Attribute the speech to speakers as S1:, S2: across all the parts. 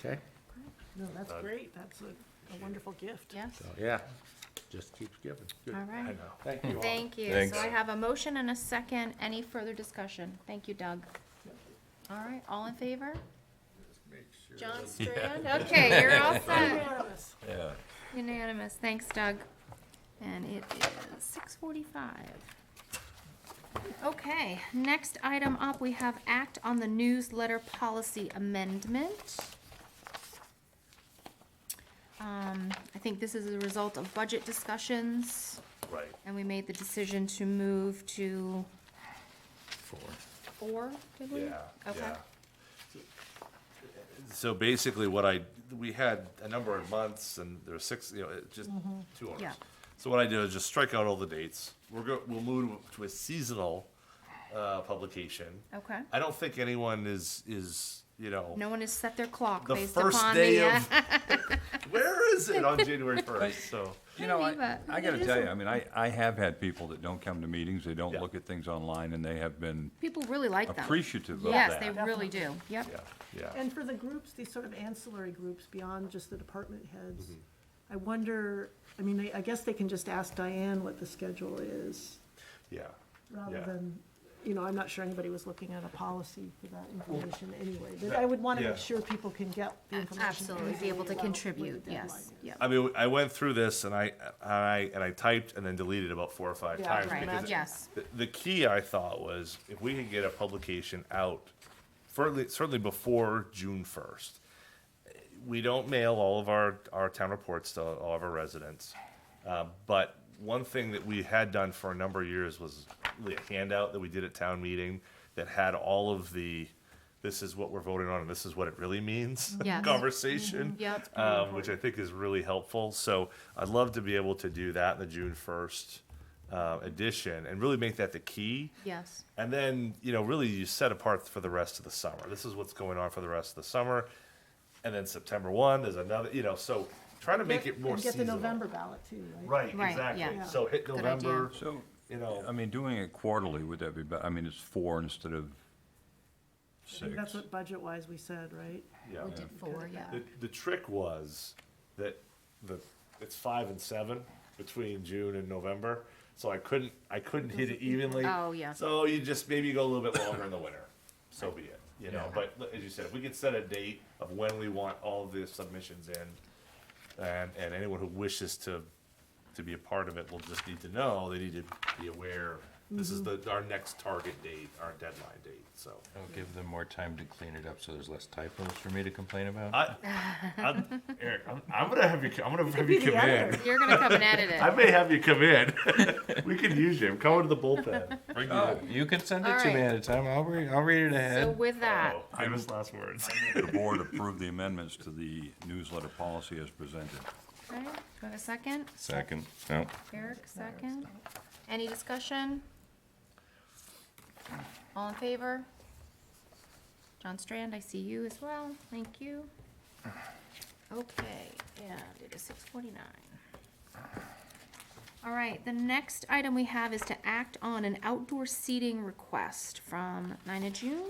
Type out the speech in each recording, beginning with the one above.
S1: Okay,
S2: No, that's
S3: Uh,
S2: great. That's a, a wonderful gift.
S4: Yes,
S3: Oh,
S1: so, yeah, just keeps giving. Good.
S4: all right.
S1: Thank you all.
S4: Thank you. So I have a motion and a second. Any further discussion? Thank you, Doug. All right, all in favor? John Strand? Okay, you're all set.
S2: Unanimous.
S3: Yeah.
S4: Unanimous. Thanks, Doug. And it is six forty-five. Okay, next item up, we have act on the newsletter policy amendment. Um, I think this is a result of budget discussions.
S3: Right.
S4: And we made the decision to move to
S3: Four.
S4: four, did we?
S3: Yeah,
S4: Okay.
S3: yeah. So basically what I, we had a number of months and there were six, you know, it just two owners.
S4: Mm-hmm. Yeah.
S3: So what I did is just strike out all the dates. We're go, we'll move to a seasonal, uh, publication.
S4: Okay.
S3: I don't think anyone is, is, you know.
S4: No one has set their clock
S3: The
S4: based
S3: first
S4: upon
S3: day
S4: the, uh,
S3: of- Where is it on January first? So,
S5: You know,
S4: believe
S5: I,
S4: it.
S5: I gotta tell you, I mean, I, I have had people that don't come to meetings, they don't
S3: Yeah.
S5: look at things online, and they have been
S4: people really like them.
S5: appreciative of
S4: Yes,
S5: that.
S4: they really do. Yep.
S3: yeah, yeah.
S2: And for the groups, these sort of ancillary groups beyond just the department heads,
S3: Mm-hmm.
S2: I wonder, I mean, I- I guess they can just ask Diane what the schedule is,
S3: Yeah.
S2: rather
S3: Yeah.
S2: than, you know, I'm not sure anybody was looking at a policy for that information anyway. But I would want to
S3: Yeah.
S2: make sure people can get the information.
S4: Absolutely, be
S2: easily
S4: able to
S2: about what the
S4: contribute,
S2: deadline
S4: yes,
S2: is.
S4: yep.
S3: I mean, I went through this and I, and I, and I typed and then deleted about four or five
S2: Yeah,
S3: times.
S2: right,
S3: because it-
S4: yes.
S3: The, the key I thought was if we could get a publication out, certainly, certainly before June first. We don't mail all of our, our town reports to all of our residents. Uh, but one thing that we had done for a number of years was really a handout that we did at town meeting that had all of the, this is what we're voting on and this is what it really means.
S4: Yes. Mm-hmm.
S3: Conversation
S4: Yep.
S3: um, which I think is really helpful. So I'd love to be able to do that in the June first uh, edition and really make that the key.
S4: Yes.
S3: And then you know, really, you set apart for the rest of the summer. This is what's going on for the rest of the summer, and then September one is another. You know, so try to make it more
S2: And get the
S3: seasonal.
S2: November ballot too, right?
S3: Right,
S4: Right,
S3: exactly.
S4: yeah.
S3: So hit
S4: idea.
S3: November.
S5: So,
S3: You know,
S5: I mean, doing it quarterly, would that be, be- I mean, it's four instead of
S2: I think that's
S5: six.
S2: what budget-wise we said, right?
S3: yeah.
S4: We did four, yeah.
S3: The, the trick was that the, it's five and seven between June and November, so I couldn't, I couldn't hit it evenly.
S4: Oh, yeah.
S3: So you just maybe go a little bit longer in the winter, so be it, you know, but li- as you said, if we could set a date of when we want all the submissions in, and, and anyone who wishes to, to be a part of it will just need to know, they need to be aware, this is
S4: Mm-hmm.
S3: the, our next target date, our deadline date, so.
S6: I'll give them more time to clean it up so there's less typos for me to complain
S4: Uh,
S6: about.
S3: I, I, Eric, I'm, I'm gonna have you, co- I'm gonna have
S2: be
S3: you come
S2: the
S3: in.
S2: editor.
S4: You're gonna come and edit
S3: I
S4: it.
S3: may have you come in. we could use you. Come into the bullpen. Bring you in.
S6: You can send it
S4: All
S6: to me
S4: right.
S6: ahead of time. I'll read, I'll read it
S4: So
S6: ahead.
S4: with that,
S3: Oh, famous last words.
S5: The board approved the amendments to the newsletter policy as presented.
S4: okay, do I have a second?
S6: Second, no.
S4: Eric, second. Any discussion? All in favor? John Strand, I see you as well. Thank you. Okay, and it is six forty-nine. All right, the next item we have is to act on an outdoor seating request from Nina June.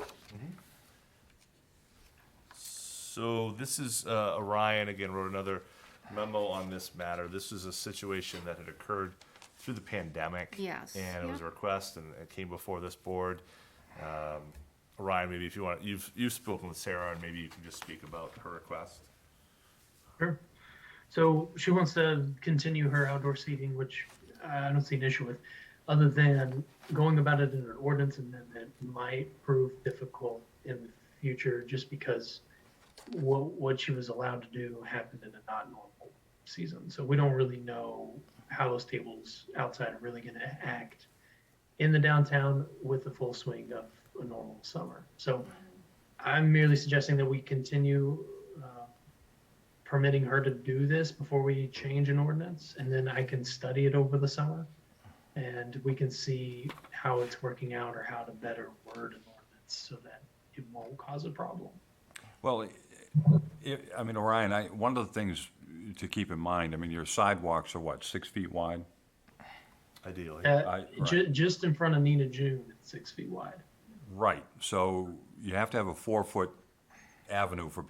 S3: So this is uh, Orion again wrote another memo on this matter. This is a situation that had occurred through the pandemic.
S4: Yes,
S3: And it was a
S4: yeah.
S3: request, and it came before this board. Um, Orion, maybe if you want, you've you've spoken with Sarah, and maybe you can just speak about her request.
S7: Sure. So she wants to continue her outdoor seating, which I don't see an issue with, other than going about it in an ordinance amendment might prove difficult in the future just because what, what she was allowed to do happened in a not normal season. So we don't really know how those tables outside are really going to act in the downtown with the full swing of a normal summer. So I'm merely suggesting that we continue uh, permitting her to do this before we change an ordinance, and then I can study it over the summer, and we can see how it's working out or how to better word an ordinance so that it won't cause a problem.
S5: Well, i- i I mean, Orion, I, one of the things to keep in mind, I mean, your sidewalks are what, six feet wide?
S3: Ideally.
S7: Uh,
S5: I-
S7: ju- just in front of Nina June, it's six feet wide.
S5: Right, so you have to have a four-foot avenue for